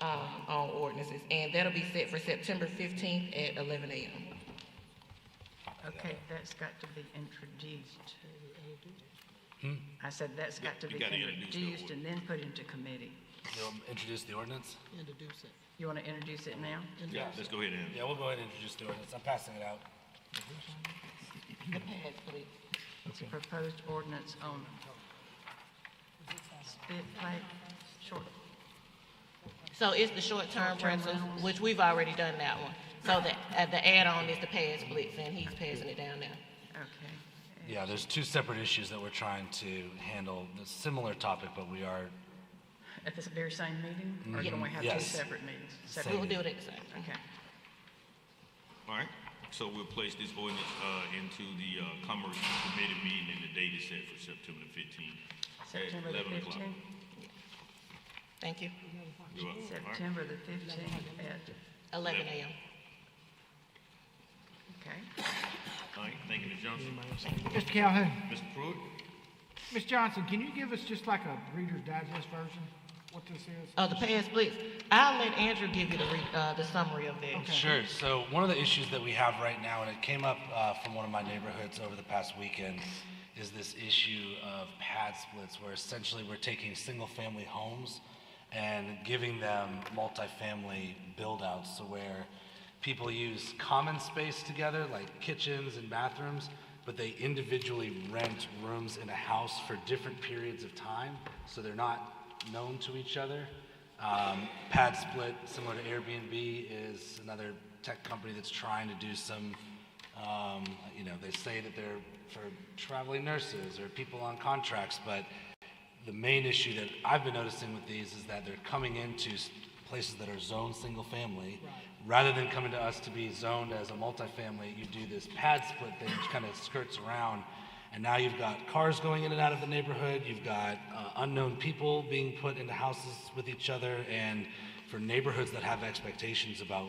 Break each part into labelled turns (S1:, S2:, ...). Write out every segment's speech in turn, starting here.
S1: um, on ordinances, and that'll be set for September fifteenth at eleven AM.
S2: Okay, that's got to be introduced. I said that's got to
S3: You
S2: be
S3: gotta introduce the
S2: introduced
S3: order.
S2: and then put into committee.
S4: You'll introduce the ordinance?
S5: Introduce it.
S2: You want to introduce it now?
S3: Yeah, let's go ahead and,
S4: Yeah, we'll go ahead and introduce the ordinance. I'm passing it out.
S1: The pass, please.
S2: It's a proposed ordinance on spit plate, short,
S1: So it's the short-term
S2: Short-term
S1: rentals,
S2: rentals.
S1: which we've already done that one. So the, uh, the add-on is the pass blitz, and he's passing it down now.
S2: okay.
S4: Yeah, there's two separate issues that we're trying to handle, a similar topic, but we are,
S2: At this very same meeting? Or can we have two
S4: Yes.
S2: separate meetings?
S1: We will
S2: Separate,
S1: do it at the same time.
S2: okay.
S3: all right. So we'll place this ordinance, uh, into the, uh, Commerce Committee meeting and the date is set for September fifteenth.
S2: September the
S3: 11 o'clock.
S2: 15th?
S1: Thank you.
S3: You're up. All right.
S2: September the 15th at,
S1: Eleven AM.
S2: okay.
S3: All right, thank you, Ms. Johnson.
S6: Mr. Calhoun,
S3: Mr. Pruitt?
S6: Ms. Johnson, can you give us just like a Reader's Digest version, what this is?
S1: Uh, the pass blitz, I'll let Andrew give you the re, uh, the summary of that.
S4: Sure. So one of the issues that we have right now, and it came up uh, from one of my neighborhoods over the past weekend, is this issue of pad splits, where essentially we're taking single-family homes and giving them multifamily build-outs, so where people use common space together, like kitchens and bathrooms, but they individually rent rooms in a house for different periods of time, so they're not known to each other. Um, Pad Split, similar to Airbnb, is another tech company that's trying to do some, um, you know, they say that they're for traveling nurses or people on contracts, but the main issue that I've been noticing with these is that they're coming into s- places that are zoned single family. Rather than coming to us to be zoned as a multifamily, you do this pad split thing, which kind of skirts around. And now you've got cars going in and out of the neighborhood. You've got uh, unknown people being put into houses with each other. And for neighborhoods that have expectations about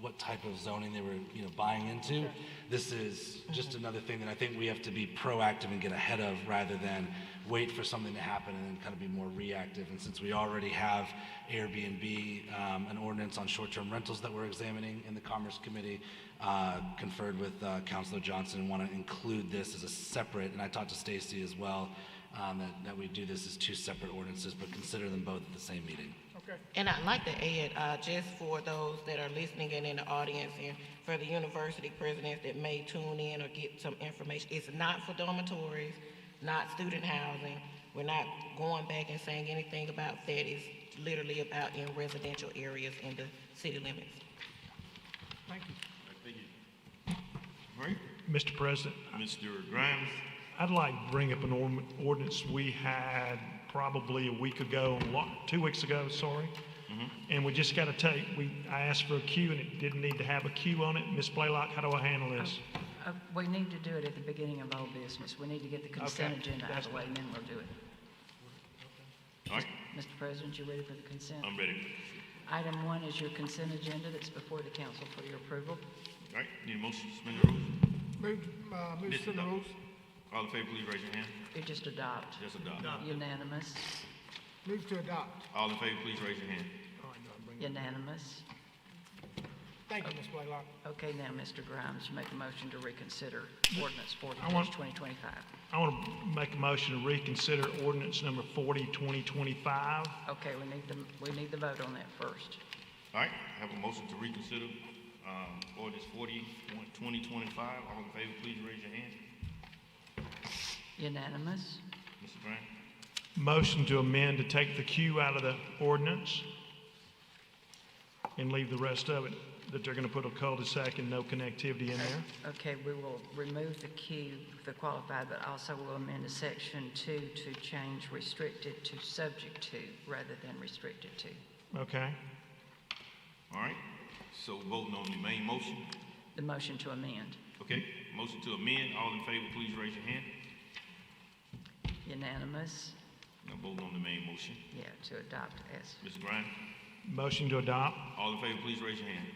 S4: what type of zoning they were, you know, buying into, this is just another thing that I think we have to be proactive and get ahead of rather than wait for something to happen and then kind of be more reactive. And since we already have Airbnb, um, an ordinance on short-term rentals that we're examining in the Commerce Committee, uh, conferred with uh, Councilor Johnson, and want to include this as a separate, and I talked to Stacy as well, um, that, that we do this as two separate ordinances, but consider them both at the same meeting.
S1: And I'd like to add, uh, just for those that are listening and in the audience and for the university presidents that may tune in or get some information, it's not for dormitories, not student housing. We're not going back and saying anything about that. It's literally about in residential areas in the city limits.
S3: All right,
S7: Mr. President,
S3: Mr. Grimes?
S7: I'd like to bring up an orm- ordinance we had probably a week ago, lo- two weeks ago, sorry. And we just got to take, we, I asked for a queue and it didn't need to have a queue on it. Ms. Blaylock, how do I handle this?
S2: Uh, We need to do it at the beginning of old business. We need to get the consent
S7: Okay,
S2: agenda out of
S7: that's
S2: the way, and then we'll do it.
S3: All right,
S2: Mr. President, you ready for the consent?
S3: I'm ready.
S2: Item one is your consent agenda that's before the council for your approval.
S3: All right, need a motion to suspend the rules?
S6: Move, uh, move
S3: Mr.
S6: to suspend the
S3: Doc-
S6: rules.
S3: All in favor, please raise your hand.
S2: You just adopt.
S3: Just adopt.
S2: Unanimous,
S6: Move to adopt.
S3: All in favor, please raise your hand.
S2: unanimous.
S6: Thank you, Ms. Blaylock.
S2: Okay, now, Mr. Grimes, you make a motion to reconsider ordinance forty
S7: I want-
S2: twenty twenty-five.
S7: I want to make a motion to reconsider ordinance number 40, 2025.
S2: Okay, we need the, we need the vote on that first.
S3: All right, I have a motion to reconsider, um, ordinance forty, twenty twenty-five. All in favor, please raise your hand.
S2: Unanimous,
S3: Mr. Grimes?
S7: Motion to amend to take the queue out of the ordinance and leave the rest of it, that they're going to put a cul-de-sac and no connectivity in there.
S2: okay, we will remove the Q, the qualified, but also we'll amend the section two to change restricted to subject to rather than restricted to.
S7: Okay.
S3: All right, so voting on the main motion,
S2: The motion to amend,
S3: okay? Motion to amend, all in favor, please raise your hand.
S2: unanimous,
S3: Now voting on the main motion.
S2: yeah, to adopt as
S3: Mr. Grimes,
S7: Motion to adopt.
S3: all in favor, please raise your hand.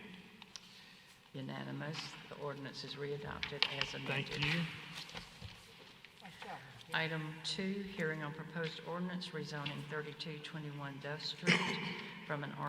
S2: unanimous. The ordinance is readopted as amended.
S7: Thank you.
S2: Item two, hearing on proposed ordinance rezoning thirty-two twenty-one Duff Street from an R